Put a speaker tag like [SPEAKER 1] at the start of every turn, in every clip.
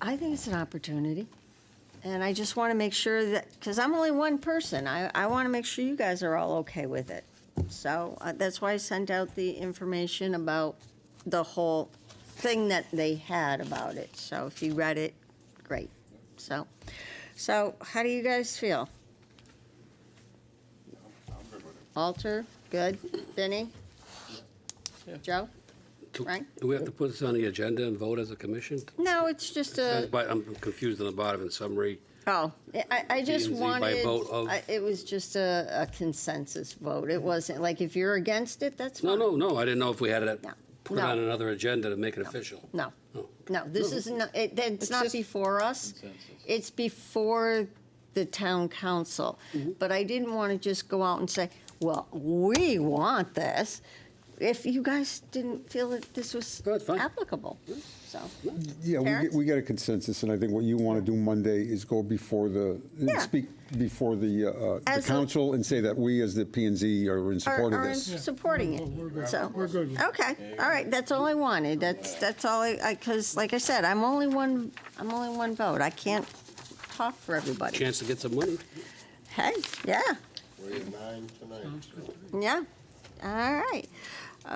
[SPEAKER 1] I think it's an opportunity. And I just want to make sure that, because I'm only one person, I, I want to make sure you guys are all okay with it. So uh, that's why I sent out the information about the whole thing that they had about it. So if you read it, great. So, so how do you guys feel? Alter, good. Benny? Joe? Right?
[SPEAKER 2] Do we have to put this on the agenda and vote as a commission?
[SPEAKER 1] No, it's just a.
[SPEAKER 2] But I'm confused on the bottom in summary.
[SPEAKER 1] Oh, I, I just
[SPEAKER 2] P and Z by
[SPEAKER 1] wanted,
[SPEAKER 2] vote of-
[SPEAKER 1] I- it was just a, a consensus vote. It wasn't, like, if you're against it, that's
[SPEAKER 2] No,
[SPEAKER 1] fine.
[SPEAKER 2] no, no, I didn't know if we had to
[SPEAKER 1] No.
[SPEAKER 2] put it
[SPEAKER 1] No.
[SPEAKER 2] on another agenda to make it official.
[SPEAKER 1] No, no, this is not, it, it's not
[SPEAKER 3] just
[SPEAKER 1] before us. It's before the town council.
[SPEAKER 2] Mm-hmm.
[SPEAKER 1] But I didn't want to just go out and say, well, we want this, if you guys didn't feel that this was
[SPEAKER 2] No, it's fine.
[SPEAKER 1] applicable, so.
[SPEAKER 4] Yeah, we get,
[SPEAKER 1] Terrence?
[SPEAKER 4] we get a consensus, and I think what you want to do Monday is go before the, and
[SPEAKER 1] Yeah.
[SPEAKER 4] speak before the, uh, the
[SPEAKER 1] As a-
[SPEAKER 4] council and say that we as the P and Z are in
[SPEAKER 1] are-
[SPEAKER 4] support of
[SPEAKER 1] are in
[SPEAKER 4] this.
[SPEAKER 1] Supporting it, so. Oh, We're good. Okay, all right, that's all I wanted, that's, that's all I, I, because like I said, I'm only one, I'm only one vote, I can't talk for everybody.
[SPEAKER 2] Chance to get some money?
[SPEAKER 1] Hey, yeah,
[SPEAKER 5] We're at nine tonight. so-
[SPEAKER 1] yeah, all right,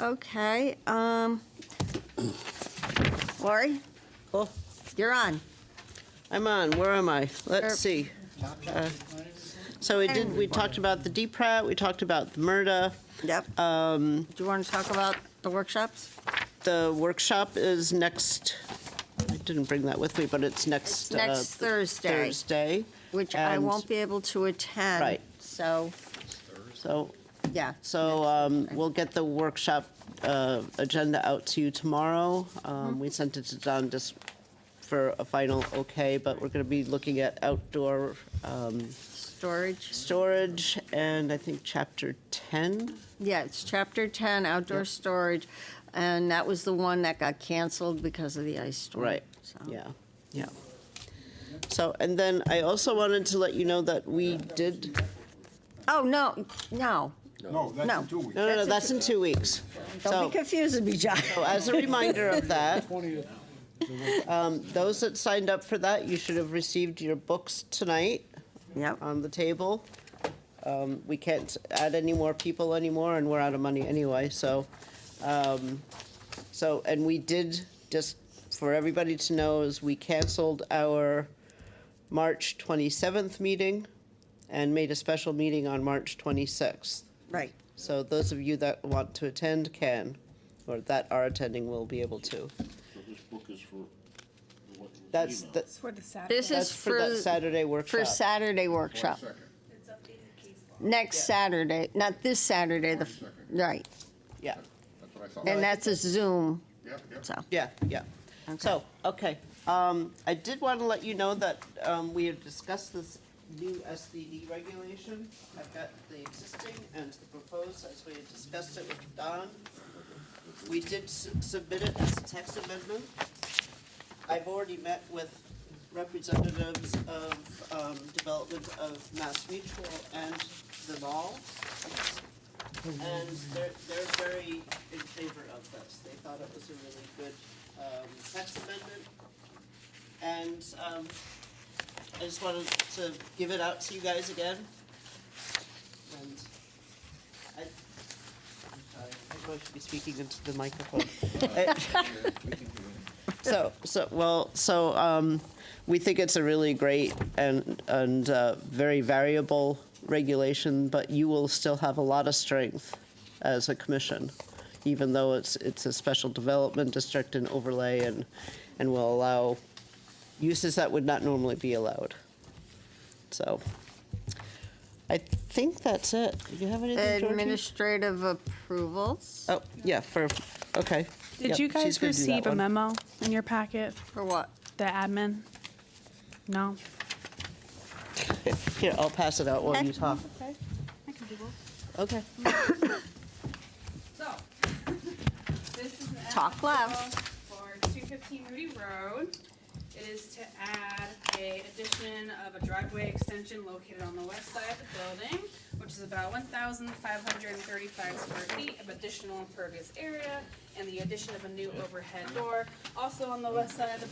[SPEAKER 1] okay, um, Lori?
[SPEAKER 3] Oh.
[SPEAKER 1] You're on,
[SPEAKER 3] I'm on, where am I?
[SPEAKER 1] Er-
[SPEAKER 3] Let's see. Uh, So we did, we talked about the DPRAT, we talked about the MRDA.
[SPEAKER 1] yep. Um. Do you want to talk about the workshops?
[SPEAKER 3] The workshop is next, I didn't bring that with me, but it's next.
[SPEAKER 1] It's next
[SPEAKER 3] uh,
[SPEAKER 1] Thursday.
[SPEAKER 3] Thursday,
[SPEAKER 1] Which I
[SPEAKER 3] And-
[SPEAKER 1] won't be able to attend.
[SPEAKER 3] Right.
[SPEAKER 1] So,
[SPEAKER 3] so,
[SPEAKER 1] yeah,
[SPEAKER 3] so um, we'll get the workshop uh, agenda out to you tomorrow. Um, We sent it to Don just for a final okay, but we're going to be looking at outdoor um,
[SPEAKER 1] storage.
[SPEAKER 3] storage and I think chapter 10.
[SPEAKER 1] Yeah, it's chapter 10, outdoor storage, and that was the one that got canceled because of the ice storm.
[SPEAKER 3] Right,
[SPEAKER 1] so.
[SPEAKER 3] yeah, yeah. So, and then I also wanted to let you know that we did,
[SPEAKER 1] Oh, no, no,
[SPEAKER 5] No, that's
[SPEAKER 1] No.
[SPEAKER 5] in two weeks.
[SPEAKER 3] no, no, no,
[SPEAKER 1] That's
[SPEAKER 3] that's in two weeks.
[SPEAKER 1] don't
[SPEAKER 3] So,
[SPEAKER 1] be confused with me, John.
[SPEAKER 3] so as a reminder of that, um, those that signed up for that, you should have received your books tonight
[SPEAKER 1] Yep,
[SPEAKER 3] on the table. Um, We can't add any more people anymore, and we're out of money anyway, so, um, so, and we did, just for everybody to know, is we canceled our March 27th meeting and made a special meeting on March 26th.
[SPEAKER 1] right,
[SPEAKER 3] So those of you that want to attend can, or that are attending will be able to.
[SPEAKER 5] So this book is for what?
[SPEAKER 3] That's,
[SPEAKER 5] email.
[SPEAKER 3] the-
[SPEAKER 6] It's for the Saturday.
[SPEAKER 1] This is
[SPEAKER 3] that's for that
[SPEAKER 1] for-
[SPEAKER 3] Saturday
[SPEAKER 1] for
[SPEAKER 3] workshop.
[SPEAKER 1] Saturday workshop. Next Saturday, not this Saturday, the, f- right,
[SPEAKER 3] Yeah,
[SPEAKER 5] That's what I thought.
[SPEAKER 1] and that's a Zoom,
[SPEAKER 5] Yep, yep.
[SPEAKER 1] so.
[SPEAKER 3] yeah, yeah. So, okay, um, I did want to let you know that, um, we have discussed this new SDD regulation. I've got the existing and the proposed, as we had discussed it with Don. We did s- submit it as a text amendment. I've already met with representatives of, um, development of Mass Mutual and the mall. And they're, they're very in favor of this. They thought it was a really good, um, text amendment. And, um, I just wanted to give it out to you guys again. And I, I'm sorry, I'm going to be speaking into the microphone. So, so, well, so, um, we think it's a really great and, and, uh, very variable regulation, but you will still have a lot of strength as a commission, even though it's, it's a special development district and overlay and, and will allow uses that would not normally be allowed. So, I think that's it. Do you have anything, Georgie?
[SPEAKER 1] Administrative approvals,
[SPEAKER 3] Oh, yeah, for, okay.
[SPEAKER 6] Did
[SPEAKER 3] Yep,
[SPEAKER 6] you guys
[SPEAKER 3] she's gonna do that
[SPEAKER 6] receive a
[SPEAKER 3] one.
[SPEAKER 6] memo in your packet,
[SPEAKER 1] for what?
[SPEAKER 6] the admin? No?
[SPEAKER 3] Here, I'll pass it out while you talk.
[SPEAKER 6] Okay, I can do both.
[SPEAKER 3] Okay.
[SPEAKER 7] So, this is an.
[SPEAKER 1] Talk loud.
[SPEAKER 7] application For two fifteen Moody Road. It is to add a addition of a driveway extension located on the west side of the building, which is about one thousand five hundred and thirty-five square feet of additional impervious area, and the addition of a new overhead door, also on the west side of the